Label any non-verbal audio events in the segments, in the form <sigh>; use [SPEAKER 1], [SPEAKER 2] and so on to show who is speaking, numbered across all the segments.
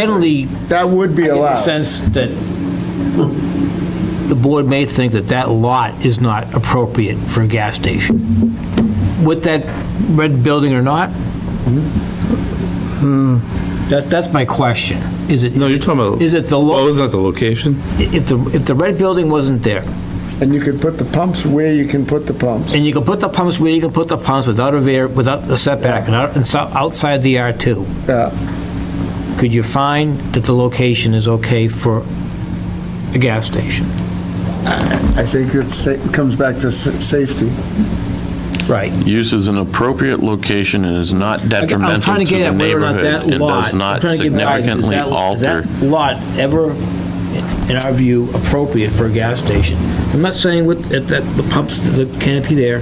[SPEAKER 1] Generally,
[SPEAKER 2] That would be
[SPEAKER 1] in the
[SPEAKER 2] allowed.
[SPEAKER 1] sense that the board may think that that lot is not appropriate for a gas station. With that red building or not? Hmm, That's, that's my question. Is it,
[SPEAKER 3] No, you're talking about.
[SPEAKER 1] Is it the lo-
[SPEAKER 3] Oh, isn't that the location?
[SPEAKER 1] if the, if the red building wasn't there,
[SPEAKER 2] And you could put the pumps where you can put the pumps.
[SPEAKER 1] and you can put the pumps where you can put the pumps without a var, without a setback, and out- and so- outside the R2,
[SPEAKER 2] Yeah.
[SPEAKER 1] could you find that the location is okay for a gas station?
[SPEAKER 2] I think it's- it comes back to sa- safety.
[SPEAKER 1] Right.
[SPEAKER 4] Use is an appropriate location and is not
[SPEAKER 1] I'm
[SPEAKER 4] detrimental
[SPEAKER 1] trying
[SPEAKER 4] to
[SPEAKER 1] get
[SPEAKER 4] the
[SPEAKER 1] at whether or not
[SPEAKER 4] neighborhood
[SPEAKER 1] that
[SPEAKER 4] and does
[SPEAKER 1] lot- I'm
[SPEAKER 4] not
[SPEAKER 1] trying to get at, is
[SPEAKER 4] significantly
[SPEAKER 1] that- Is
[SPEAKER 4] alter.
[SPEAKER 1] that lot ever, in our view, appropriate for a gas station? I'm not saying with, that that the pumps, the canopy there,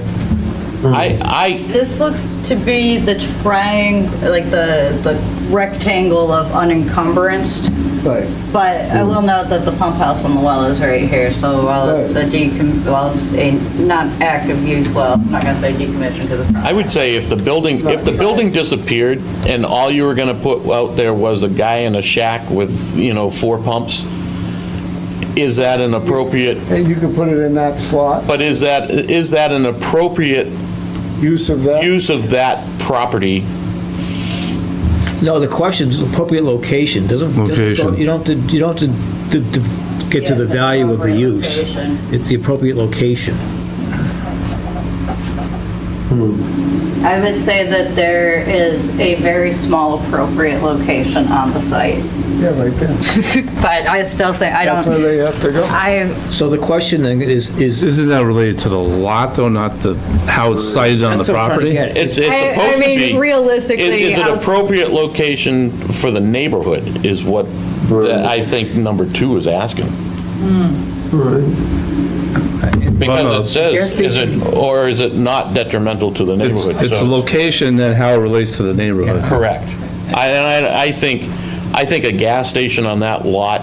[SPEAKER 4] I, I,
[SPEAKER 5] This looks to be the triangle, like the, the rectangle of unencumbered,
[SPEAKER 2] Right.
[SPEAKER 5] but I will
[SPEAKER 1] Mm.
[SPEAKER 5] note that the pump house on the well is right here, so while it's a decom, while it's a not active use well, I'm not gonna say decommissioned because it's not.
[SPEAKER 4] I would say if the building, if the building disappeared and all you were going to put out there was a guy in a shack with, you know, four pumps, is that an appropriate,
[SPEAKER 2] And you could put it in that slot,
[SPEAKER 4] but is that, is that an appropriate
[SPEAKER 2] use of that.
[SPEAKER 4] use of that property?
[SPEAKER 1] no, the question is appropriate location, doesn't. doesn't-
[SPEAKER 3] Location.
[SPEAKER 1] You don't have to, you don't have to, to- to get to the
[SPEAKER 5] Yeah,
[SPEAKER 1] value of the
[SPEAKER 5] appropriate
[SPEAKER 1] use.
[SPEAKER 5] location.
[SPEAKER 1] It's the appropriate location.
[SPEAKER 5] I would say that there is a very small appropriate location on the site, <laughs>
[SPEAKER 2] Yeah, right there.
[SPEAKER 5] but I still think, I
[SPEAKER 2] That's where
[SPEAKER 5] don't,
[SPEAKER 2] they have to go.
[SPEAKER 5] I,
[SPEAKER 1] So the question then is, is.
[SPEAKER 3] Isn't that related to the lot, though, not the, how it's sited on the
[SPEAKER 1] That's what I'm trying to
[SPEAKER 3] property?
[SPEAKER 1] get at.
[SPEAKER 4] It's, it's
[SPEAKER 5] I- I
[SPEAKER 4] supposed to be.
[SPEAKER 5] mean, realistically,
[SPEAKER 4] Is- Is it
[SPEAKER 5] outs-
[SPEAKER 4] appropriate location for the neighborhood is what the- I think number two is asking. Because it says, is it, or is it not detrimental to the
[SPEAKER 3] It's,
[SPEAKER 4] neighborhood?
[SPEAKER 3] it's the
[SPEAKER 4] So-
[SPEAKER 3] location and how it relates to the neighborhood.
[SPEAKER 4] Correct. I, and I, I think, I think a gas station on that lot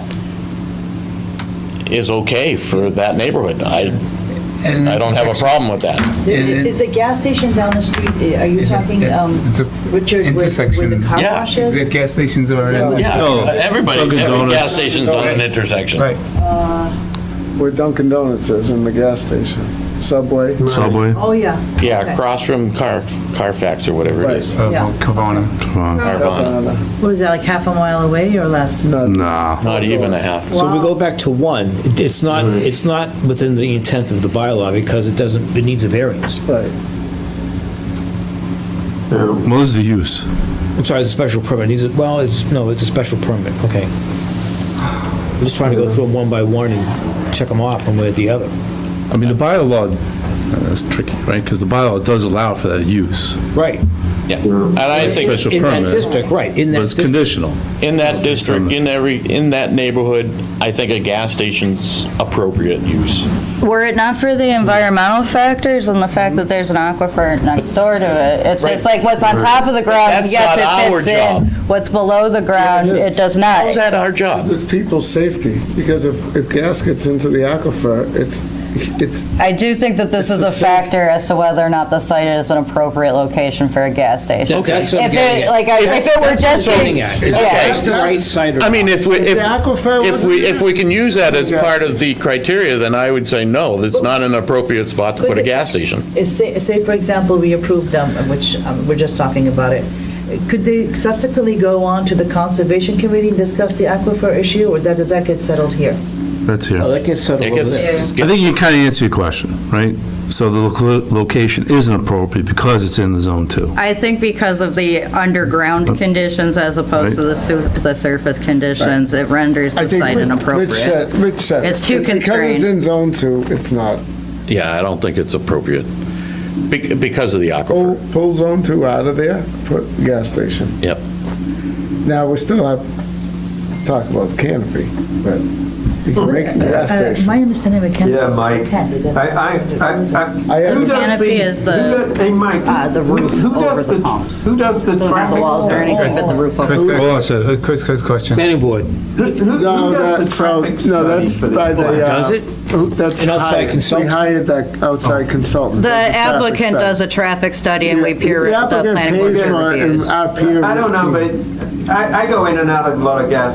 [SPEAKER 4] is okay for that neighborhood. I, I don't have a problem with that.
[SPEAKER 6] Is the gas station down the street, are you talking, um,
[SPEAKER 7] It's a
[SPEAKER 6] Richard, where- where the
[SPEAKER 7] intersection.
[SPEAKER 6] car
[SPEAKER 4] Yeah.
[SPEAKER 6] wash
[SPEAKER 7] The
[SPEAKER 6] is?
[SPEAKER 7] gas stations are
[SPEAKER 6] that-
[SPEAKER 7] around.
[SPEAKER 3] No,
[SPEAKER 4] Yeah, everybody,
[SPEAKER 3] Dunkin'
[SPEAKER 4] every
[SPEAKER 3] Donuts.
[SPEAKER 4] gas station's on an intersection.
[SPEAKER 7] Right.
[SPEAKER 2] Where Dunkin' Donuts is in the gas station. Subway.
[SPEAKER 3] Subway.
[SPEAKER 6] Oh, yeah.
[SPEAKER 4] Yeah,
[SPEAKER 6] Okay.
[SPEAKER 4] across from Car, Carfax or whatever it is.
[SPEAKER 7] Of
[SPEAKER 6] Yeah.
[SPEAKER 7] Kavana.
[SPEAKER 4] Carvana.
[SPEAKER 2] Uh,
[SPEAKER 6] What is that, like half a mile away or less?
[SPEAKER 3] Nah.
[SPEAKER 4] Not even a half.
[SPEAKER 1] So we
[SPEAKER 6] Wow.
[SPEAKER 1] go back to one, It- it's not, it's not within the intent of the bylaw because it doesn't, it needs a variance.
[SPEAKER 2] Right.
[SPEAKER 3] What is the use?
[SPEAKER 1] I'm sorry, it's a special permit. He's, well, it's, no, it's a special permit, okay. I'm just trying to go through them one by one and check them off one way or the other.
[SPEAKER 3] I mean, the bylaw, uh, that's tricky, right? Because the bylaw does allow for that use.
[SPEAKER 1] Right.
[SPEAKER 4] Yeah. And I think
[SPEAKER 3] Special
[SPEAKER 1] In that
[SPEAKER 3] permit,
[SPEAKER 1] district, right, in
[SPEAKER 3] but
[SPEAKER 1] that
[SPEAKER 3] it's
[SPEAKER 1] district.
[SPEAKER 3] conditional.
[SPEAKER 4] in that district, in every, in that neighborhood, I think a gas station's appropriate use.
[SPEAKER 5] Were it not for the environmental factors and the fact that there's an aquifer next door to it, it's just like what's on top of the ground,
[SPEAKER 4] That's
[SPEAKER 5] yes,
[SPEAKER 4] not
[SPEAKER 5] it
[SPEAKER 4] our
[SPEAKER 5] fits in. What's below the ground,
[SPEAKER 2] Yeah, it is.
[SPEAKER 5] it does not.
[SPEAKER 4] How's that our job?
[SPEAKER 2] It's people's safety, because if, if gas gets into the aquifer, it's, it's,
[SPEAKER 5] I do think that this
[SPEAKER 2] It's
[SPEAKER 5] is
[SPEAKER 2] the
[SPEAKER 5] a
[SPEAKER 2] same-
[SPEAKER 5] factor as to whether or not the site is an appropriate location for a gas station.
[SPEAKER 1] Okay. That's what I'm
[SPEAKER 5] If
[SPEAKER 1] getting
[SPEAKER 5] it,
[SPEAKER 1] at.
[SPEAKER 5] like, I- if it were just. a-
[SPEAKER 1] Zoning act. Is it
[SPEAKER 5] Yeah.
[SPEAKER 4] Okay.
[SPEAKER 1] just the right side or
[SPEAKER 4] I mean, if we,
[SPEAKER 2] If
[SPEAKER 4] if,
[SPEAKER 2] the aquifer
[SPEAKER 4] if
[SPEAKER 2] wasn't
[SPEAKER 4] we,
[SPEAKER 2] there-
[SPEAKER 4] if we can use that as part of the criteria, then I would say no, that's not an appropriate spot to put a gas station.
[SPEAKER 6] If, say, say for example, we approve them, which um, we're just talking about it, could they subsequently go on to the conservation committee and discuss the aquifer issue, or that, does that get settled here?
[SPEAKER 3] That's
[SPEAKER 1] Oh,
[SPEAKER 3] here.
[SPEAKER 1] that gets settled
[SPEAKER 4] It
[SPEAKER 1] over
[SPEAKER 4] gets,
[SPEAKER 1] there.
[SPEAKER 3] I think you kind of answered your question, right? So the loca- location isn't appropriate because it's in the zone two.
[SPEAKER 5] I think because of the underground conditions as opposed to the su, the surface conditions, it renders
[SPEAKER 2] I
[SPEAKER 5] the
[SPEAKER 2] think.
[SPEAKER 5] site
[SPEAKER 2] Rich-
[SPEAKER 5] inappropriate.
[SPEAKER 2] Rich said, Rich said.
[SPEAKER 5] It's too
[SPEAKER 2] Because it's
[SPEAKER 5] constrained.
[SPEAKER 2] in zone two, it's not.
[SPEAKER 4] yeah, I don't think it's appropriate Bec- because of the
[SPEAKER 5] Oh.
[SPEAKER 2] Pull,
[SPEAKER 4] aquifer.
[SPEAKER 2] pull zone two out of there, put gas station.
[SPEAKER 4] Yep.
[SPEAKER 2] Now, we still have talk about the canopy, but you can make a gas
[SPEAKER 6] Uh,
[SPEAKER 2] station.
[SPEAKER 6] My understanding of canopy
[SPEAKER 7] Yeah,
[SPEAKER 6] is like
[SPEAKER 7] Mike.
[SPEAKER 6] a tent, is that?
[SPEAKER 7] I, I, I, I.
[SPEAKER 2] I
[SPEAKER 7] who
[SPEAKER 2] haven't-
[SPEAKER 7] does
[SPEAKER 5] Canopy is
[SPEAKER 7] who
[SPEAKER 5] the,
[SPEAKER 7] does- Hey, Mike.
[SPEAKER 5] uh, the
[SPEAKER 7] who-
[SPEAKER 5] roof
[SPEAKER 7] who
[SPEAKER 5] over
[SPEAKER 7] does
[SPEAKER 5] the pumps.
[SPEAKER 7] Who does the
[SPEAKER 5] Doesn't have
[SPEAKER 7] traffic?
[SPEAKER 5] the walls or anything, but the roof over.
[SPEAKER 3] Chris, go on, sir.
[SPEAKER 8] uh, Chris, Chris, question.
[SPEAKER 1] Planning board,
[SPEAKER 7] Who, who
[SPEAKER 2] No,
[SPEAKER 7] who does the
[SPEAKER 2] that, so,
[SPEAKER 7] traffic
[SPEAKER 2] no,
[SPEAKER 7] study
[SPEAKER 2] that's
[SPEAKER 7] for
[SPEAKER 2] by
[SPEAKER 7] this?
[SPEAKER 2] the, uh.
[SPEAKER 1] Does it?
[SPEAKER 2] who- That's
[SPEAKER 1] An outside Oh.
[SPEAKER 2] hired. We
[SPEAKER 1] consultant?
[SPEAKER 2] hired that outside consultant.
[SPEAKER 5] The applicant does a traffic study and we peer, the
[SPEAKER 2] applicant
[SPEAKER 5] planning board
[SPEAKER 2] pays
[SPEAKER 5] peer
[SPEAKER 2] for it and
[SPEAKER 5] reviews.
[SPEAKER 2] our peer
[SPEAKER 7] I don't know,
[SPEAKER 2] review.
[SPEAKER 7] but I, I go in and out of a lot of gas